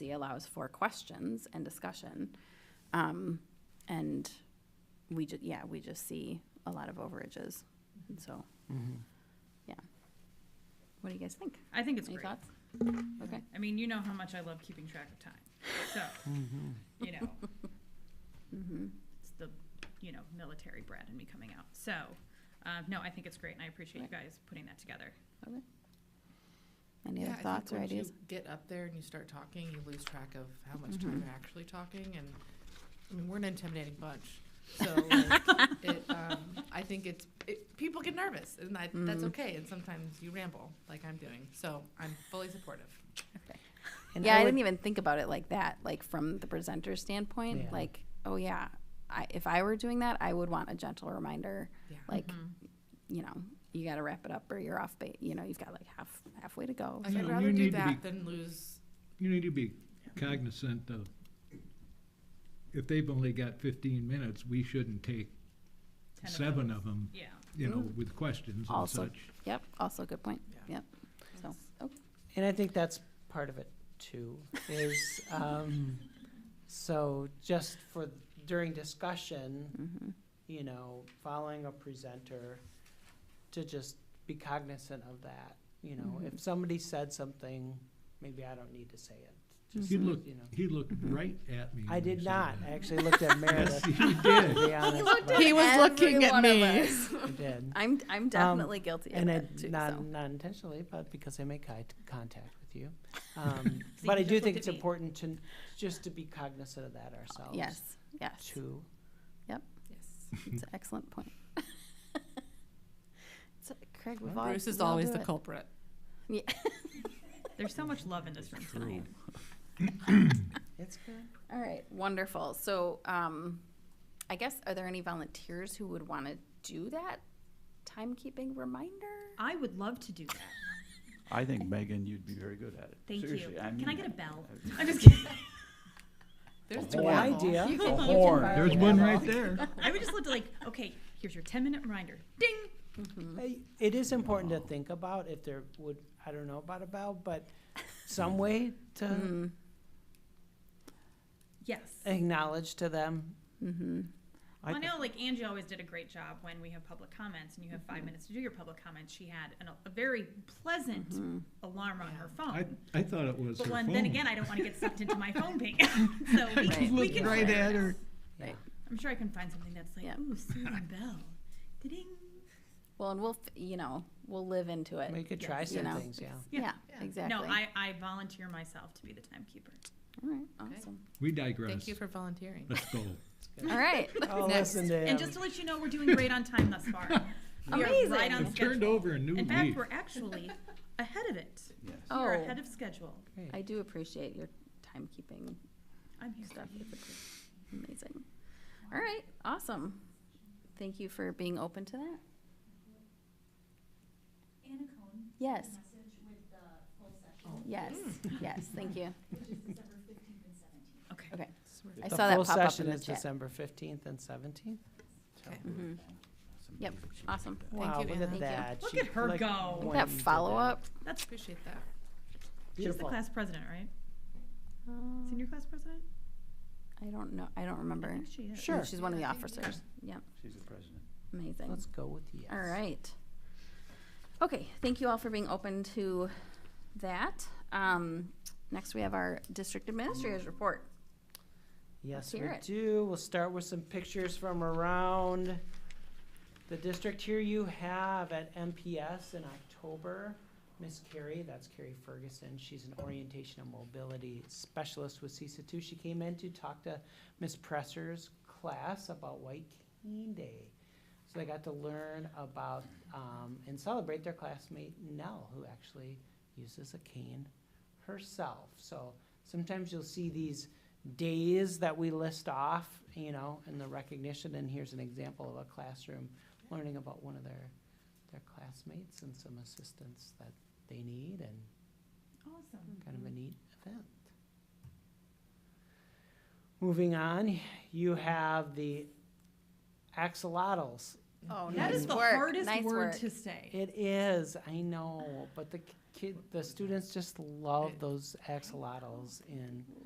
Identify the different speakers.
Speaker 1: policy allows for questions and discussion. Um, and we ju, yeah, we just see a lot of overages, and so,
Speaker 2: Mm-hmm.
Speaker 1: yeah. What do you guys think?
Speaker 3: I think it's
Speaker 1: Any
Speaker 3: great.
Speaker 1: thoughts?
Speaker 4: Mm-hmm.
Speaker 1: Okay,
Speaker 3: I mean, you know how much I love keeping track of time. So, you know,
Speaker 1: Mm-hmm.
Speaker 3: it's the, you know, military brat in me coming out. So, um, no, I think it's great, and I appreciate you guys putting that together.
Speaker 1: okay. Any
Speaker 4: Yeah, I
Speaker 1: other
Speaker 4: think
Speaker 1: thoughts or
Speaker 4: once you
Speaker 1: ideas?
Speaker 4: Get up there and you start talking, you lose track of how much
Speaker 1: Mm-hmm.
Speaker 4: time you're actually talking, and, I mean, we're an intimidating bunch. So, like, it, um, I think it's, it, people get nervous, and that,
Speaker 1: Mm.
Speaker 4: that's okay, and sometimes you ramble, like I'm doing, so I'm fully supportive.
Speaker 2: And
Speaker 1: yeah, I,
Speaker 2: would-
Speaker 1: didn't even think about it like that, like from the presenter standpoint.
Speaker 2: Yeah.
Speaker 1: Like, oh yeah, I, if I were doing that, I would want a gentle reminder,
Speaker 4: Yeah.
Speaker 1: like,
Speaker 4: Mm-hmm.
Speaker 1: you know, you got to wrap it up or you're off base. You know, you've got like half halfway to go.
Speaker 4: Like,
Speaker 1: so-
Speaker 4: I'd
Speaker 5: You
Speaker 4: rather do
Speaker 5: need to be-
Speaker 4: that than lose,
Speaker 5: You need to be cognizant of, if they've only got fifteen minutes, we shouldn't take
Speaker 3: Ten of Mm-hmm.
Speaker 5: seven
Speaker 3: those.
Speaker 5: of them,
Speaker 3: Yeah.
Speaker 5: you know, with questions and
Speaker 1: Also-
Speaker 5: such.
Speaker 1: Yep. Also, good point.
Speaker 4: Yeah.
Speaker 1: Yep. So, oh. okay.
Speaker 2: And I think that's part of it too, is, um, so just for, during discussion,
Speaker 1: Mm-hmm.
Speaker 2: you know, following a presenter, to just be cognizant of that, you know, if somebody said something, maybe I don't need to say it. Just,
Speaker 5: He looked,
Speaker 2: you know.
Speaker 5: he looked right at me.
Speaker 2: Mm-hmm. I
Speaker 5: when
Speaker 2: did
Speaker 5: said
Speaker 2: not,
Speaker 5: that.
Speaker 2: I actually looked at
Speaker 5: Yes,
Speaker 2: Meredith,
Speaker 5: he
Speaker 2: to
Speaker 5: did.
Speaker 2: be honest, but
Speaker 4: He was looking at me.
Speaker 2: I did.
Speaker 1: I'm I'm definitely guilty of
Speaker 2: And
Speaker 1: that
Speaker 2: it,
Speaker 1: too.
Speaker 2: not,
Speaker 1: so.
Speaker 2: not intentionally, but because I make eye t- contact with you. Um,
Speaker 3: See,
Speaker 2: but I
Speaker 3: you
Speaker 2: do
Speaker 3: just
Speaker 2: think
Speaker 3: looked
Speaker 2: it's
Speaker 3: at me.
Speaker 2: important to, n- just to be cognizant of that ourselves.
Speaker 1: Yes. Yes.
Speaker 2: Too.
Speaker 4: yes.
Speaker 1: It's an excellent point. so, Craig, we've all
Speaker 4: Bruce is
Speaker 1: we all
Speaker 4: always
Speaker 1: do
Speaker 4: the
Speaker 1: it.
Speaker 4: culprit.
Speaker 3: There's so much love in this room tonight.
Speaker 2: It's good.
Speaker 1: All right, wonderful. So, um, I guess, are there any volunteers who would want to do that timekeeping reminder?
Speaker 3: I would love to do that.
Speaker 6: I think Megan, you'd be very good at it.
Speaker 3: Thank
Speaker 6: Seriously,
Speaker 3: you.
Speaker 6: I mean
Speaker 3: Can I get a
Speaker 6: that.
Speaker 3: bell? I'm just kidding.
Speaker 4: There's
Speaker 5: Oh,
Speaker 2: Good
Speaker 4: the ramble.
Speaker 2: idea.
Speaker 5: There's one right there.
Speaker 3: I would just love to like, okay, here's your 10 minute reminder. Ding.
Speaker 2: I- It is important to think about if there would, I don't know about a bell, but some way
Speaker 1: Mm-hmm.
Speaker 2: to
Speaker 3: Yes.
Speaker 2: acknowledge to them.
Speaker 1: Mm-hmm.
Speaker 3: I,
Speaker 2: I-
Speaker 3: know, like Angie always did a great job when we have public comments and you have 5
Speaker 1: Mm-hmm.
Speaker 3: minutes to do your public comments. She had an, a very pleasant
Speaker 1: Mm-hmm.
Speaker 3: alarm on her phone.
Speaker 5: I, I thought it was her
Speaker 3: But
Speaker 5: phone.
Speaker 3: when, then again, I don't want to get sucked into my phone ping. so we,
Speaker 5: She
Speaker 3: can we
Speaker 5: looked
Speaker 3: can.
Speaker 5: right at her.
Speaker 1: Right.
Speaker 3: I'm sure I can find something that's like,
Speaker 1: Yeah.
Speaker 3: ooh, Susan Bell. Ding.
Speaker 1: Well, and we'll, f- you know, we'll live into it.
Speaker 2: Make it
Speaker 3: Yes,
Speaker 2: try
Speaker 1: you
Speaker 2: some
Speaker 1: know.
Speaker 2: things, yeah.
Speaker 1: yeah,
Speaker 3: Yeah.
Speaker 1: exactly.
Speaker 3: No, I, I volunteer myself to be the timekeeper.
Speaker 1: All right, awesome.
Speaker 5: We digress.
Speaker 4: Thank you for volunteering.
Speaker 5: Let's go.
Speaker 1: All right,
Speaker 2: Oh, listen to
Speaker 3: And
Speaker 2: him.
Speaker 3: just to let you know, we're doing great on time thus far. We are right
Speaker 1: Amazing.
Speaker 3: on
Speaker 1: I've
Speaker 5: I've turned
Speaker 3: schedule.
Speaker 5: over a new
Speaker 3: In fact,
Speaker 5: leaf.
Speaker 3: we're actually ahead of it.
Speaker 6: Yes.
Speaker 3: We are
Speaker 1: Oh.
Speaker 3: ahead of schedule.
Speaker 2: Great.
Speaker 1: I do appreciate your timekeeping
Speaker 3: I'm here.
Speaker 1: stuff. It's a- Amazing. All right, awesome. Thank you for being open to that.
Speaker 7: Anna Cohen,
Speaker 1: Yes, Oh.
Speaker 7: the message with the full session,
Speaker 1: yes,
Speaker 2: Hmm.
Speaker 1: yes, thank you.
Speaker 7: which is December fifteenth and seventeenth.
Speaker 3: Okay.
Speaker 1: Okay. I
Speaker 2: The
Speaker 1: saw that
Speaker 2: full
Speaker 1: pop up
Speaker 2: session
Speaker 1: in the
Speaker 2: is
Speaker 1: chat.
Speaker 2: December fifteenth and seventeenth.
Speaker 1: Mhm. Yep, awesome.
Speaker 2: Wow,
Speaker 4: you,
Speaker 2: look
Speaker 4: Anna.
Speaker 2: at
Speaker 1: Thank you.
Speaker 2: that.
Speaker 3: Look
Speaker 2: She,
Speaker 3: at her
Speaker 2: like,
Speaker 3: go. That
Speaker 1: That
Speaker 2: went into
Speaker 1: follow-up,
Speaker 3: That's,
Speaker 4: Appreciate that.
Speaker 3: she's the
Speaker 2: Beautiful.
Speaker 3: class president, right?
Speaker 1: um,
Speaker 3: Senior class president?
Speaker 1: I don't know, I don't
Speaker 3: I
Speaker 1: remember.
Speaker 3: think she is.
Speaker 2: Sure.
Speaker 1: She's one of the
Speaker 4: Yeah, I think
Speaker 1: officers. Yep,
Speaker 6: She's the president.
Speaker 1: amazing.
Speaker 2: Let's go with yes.
Speaker 1: All right. Okay, thank you all for being open to that. Um, next, we have our district administrators report. Let's
Speaker 2: Yes, we
Speaker 1: hear it.
Speaker 2: do. We'll start with some pictures from around the district. Here you have at MPS in October, Miss Carrie, that's Carrie Ferguson. She's an orientation and mobility specialist with CISA two. She came in to talk to Miss Presser's class about White Cane Day. So they got to learn about, um, and celebrate their classmate Nell, who actually uses a cane herself. So sometimes you'll see these days that we list off, you know, and the recognition, and here's an example of a classroom learning about one of their, their classmates and some assistance that they need and
Speaker 3: Awesome.
Speaker 2: kind of a neat event. Moving on, you have the axolotls
Speaker 1: Oh,
Speaker 3: That
Speaker 1: nice
Speaker 3: is the
Speaker 1: work,
Speaker 3: hardest
Speaker 1: nice
Speaker 3: word
Speaker 1: work.
Speaker 3: to say.
Speaker 2: It is, I know, but the kid, the students just love those axolotls in